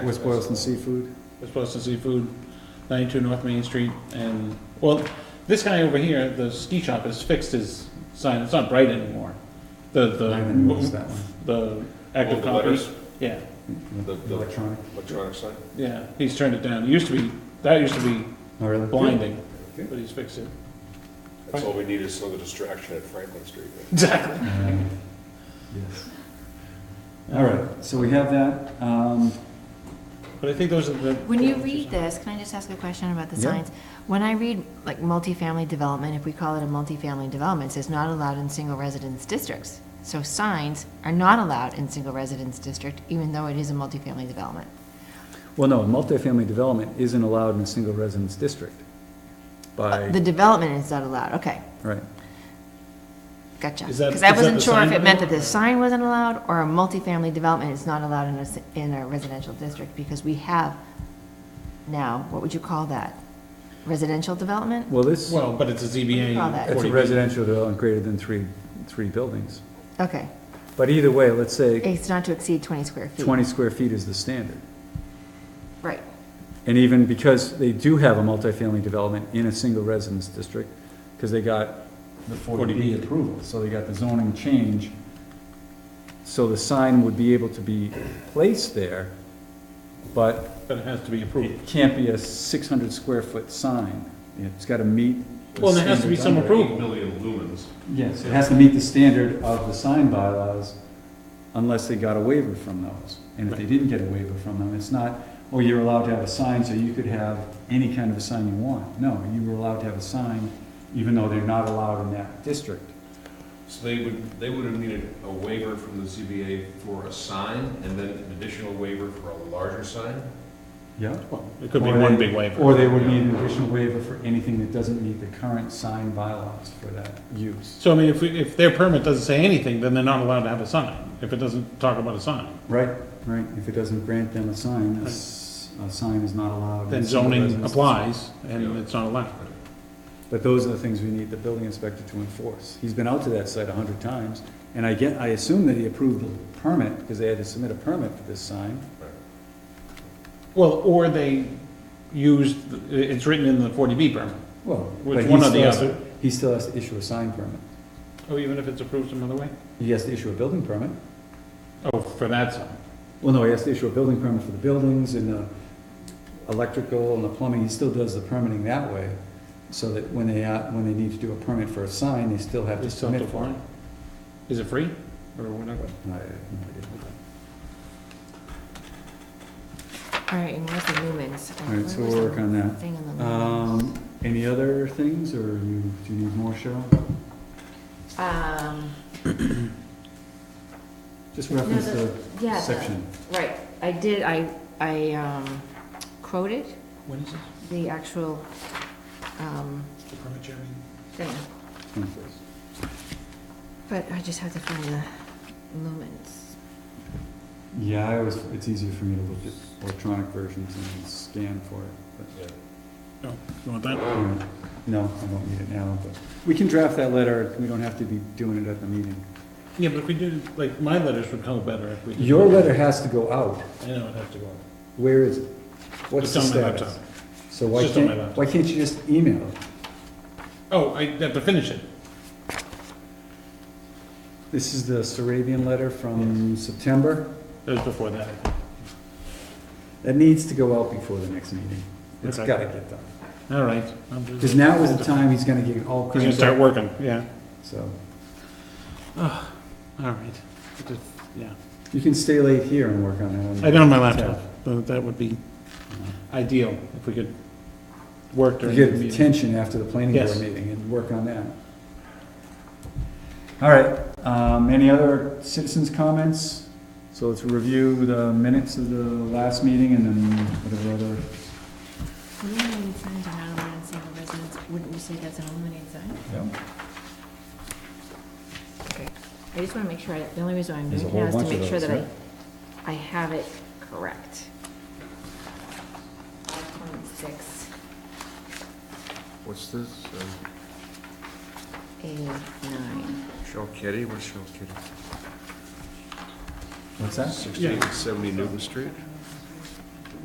West Boylston Seafood. West Boylston Seafood, ninety-two North Main Street, and, well, this guy over here, the ski shop, has fixed his sign, it's not bright anymore. The, the. Mm-hmm. I haven't noticed that one. The Oh, active the letters? copies, yeah, The- the- Electronic. Electronic sign? yeah, he's turned it down, it used to be, that used to be Oh, really? blinding, Good. but he's fixed it. That's all we need is another distraction at Franklin Street. Exactly. Uh, Yes. All right, so we have that. Um, But I think those are the. When you read this, can I just ask a question about the Yeah. signs? When I read, like, multifamily development, if we call it a multifamily development, it says not allowed in single residence districts. So signs are not allowed in single residence district, even though it is a multifamily development. Well, no, multifamily development isn't allowed in a single residence district by, Uh, The development is not allowed, okay, right. gotcha. Is that- Because I is that wasn't the sure if sign it meant that development? the sign wasn't allowed, or a multifamily development is not allowed in a, s- in a residential district, because we have now, what would you call that? Residential development? Well, this, Well, but it's a ZBA. Call that. it's a 40B. residential development greater than three, three buildings. Okay, But either way, let's say it's not to exceed twenty square feet. twenty square feet is the standard. Right. And even because they do have a multifamily development in a single residence district, because they got the 40B 40B. approval, so they got the zoning change. So the sign would be able to be placed there, but But it has to be approved. it can't be a six hundred square foot sign. It's gotta meet. the Well, there has to be standards some under it. approval. Million lumens. Yes, it has to meet the standard of the sign bylaws unless they got a waiver from those. And if they didn't get a waiver from them, it's not, oh, you're allowed to have a sign, so you could have any kind of a sign you want. No, you were allowed to have a sign, even though they're not allowed in that district. So they would, they would have needed a waiver from the ZBA for a sign, and then an additional waiver for a larger sign? Yeah. Well, It could be one big waiver. Or they would need an additional waiver for anything that doesn't meet the current sign bylaws for that use. So I mean, if, we- if their permit doesn't say anything, then they're not allowed to have a sign, if it doesn't talk about a sign. Right, right, if it doesn't grant them a sign, a s- a sign is not allowed. in Then single zoning residence. applies, and it's not allowed. But those are the things we need the building inspector to enforce. He's been out to that site a hundred times, and I get, I assume that he approved the permit, because they had to submit a permit for this sign. Well, or they used, it's written in the 40B permit. Well, Which but he one or still the has other? to- He still has to issue a sign permit. Oh, even if it's approved some other way? He has to issue a building permit. Oh, for that sign. Well, no, he has to issue a building permit for the buildings and the electrical and the plumbing. He still does the permitting that way, so that when they, uh, when they need to do a permit for a sign, they still have They to still have submit to for it. apply. Is it free, or whatever? No, I have no idea. All right, and where's the lumens? All right, so Where was we'll the work on that. Thing on the lumens. Um, any other things, or you, do you need more, Cheryl? Um, Just no, reference the- the yeah, the- section. Right, I did, I, I um, quoted When is it? the actual, um, The permit hearing? thing, Come first. but I just have to find the lumens. Yeah, I always, it's easier for me to look at electronic versions and scan for it, Yeah. No, you want that? but, all right. no, I won't need it now, but, we can draft that letter, we don't have to be doing it at the meeting. Yeah, but if we did, like, my letters would come better if we did. Your letter has to go out, I know, it'd have to go. where is it? What's It's the on my status? laptop. So why It's just on my can't, laptop. why can't you just email it? Oh, I have to finish it. This is the Sarabian letter from September, That was before that. that needs to go out before the next meeting, it's Okay. gotta get done. All right. I'm Because just- now is the time he's gonna get all He's gonna cramped start up, working, yeah. so. All right. I just- Yeah. You can stay late here and work on that one. I don't have my laptop, but that would be ideal if we could work You during the get meeting. attention after the planning board Yes. meeting and work on that. All right, um, any other citizens' comments? So let's review the minutes of the last meeting and then whatever other, Illuminated signs are not allowed in single residence, wouldn't you say that's an illuminated sign? Okay, I just wanna make sure, I- the only reason I'm There's a doing it now whole is bunch to of make sure those, that I, right? I have it correct. Five point six What's this? Uh, eight nine. Shell Kitty, what's Shell Kitty? what's that? Yeah. 1670 Newton Street?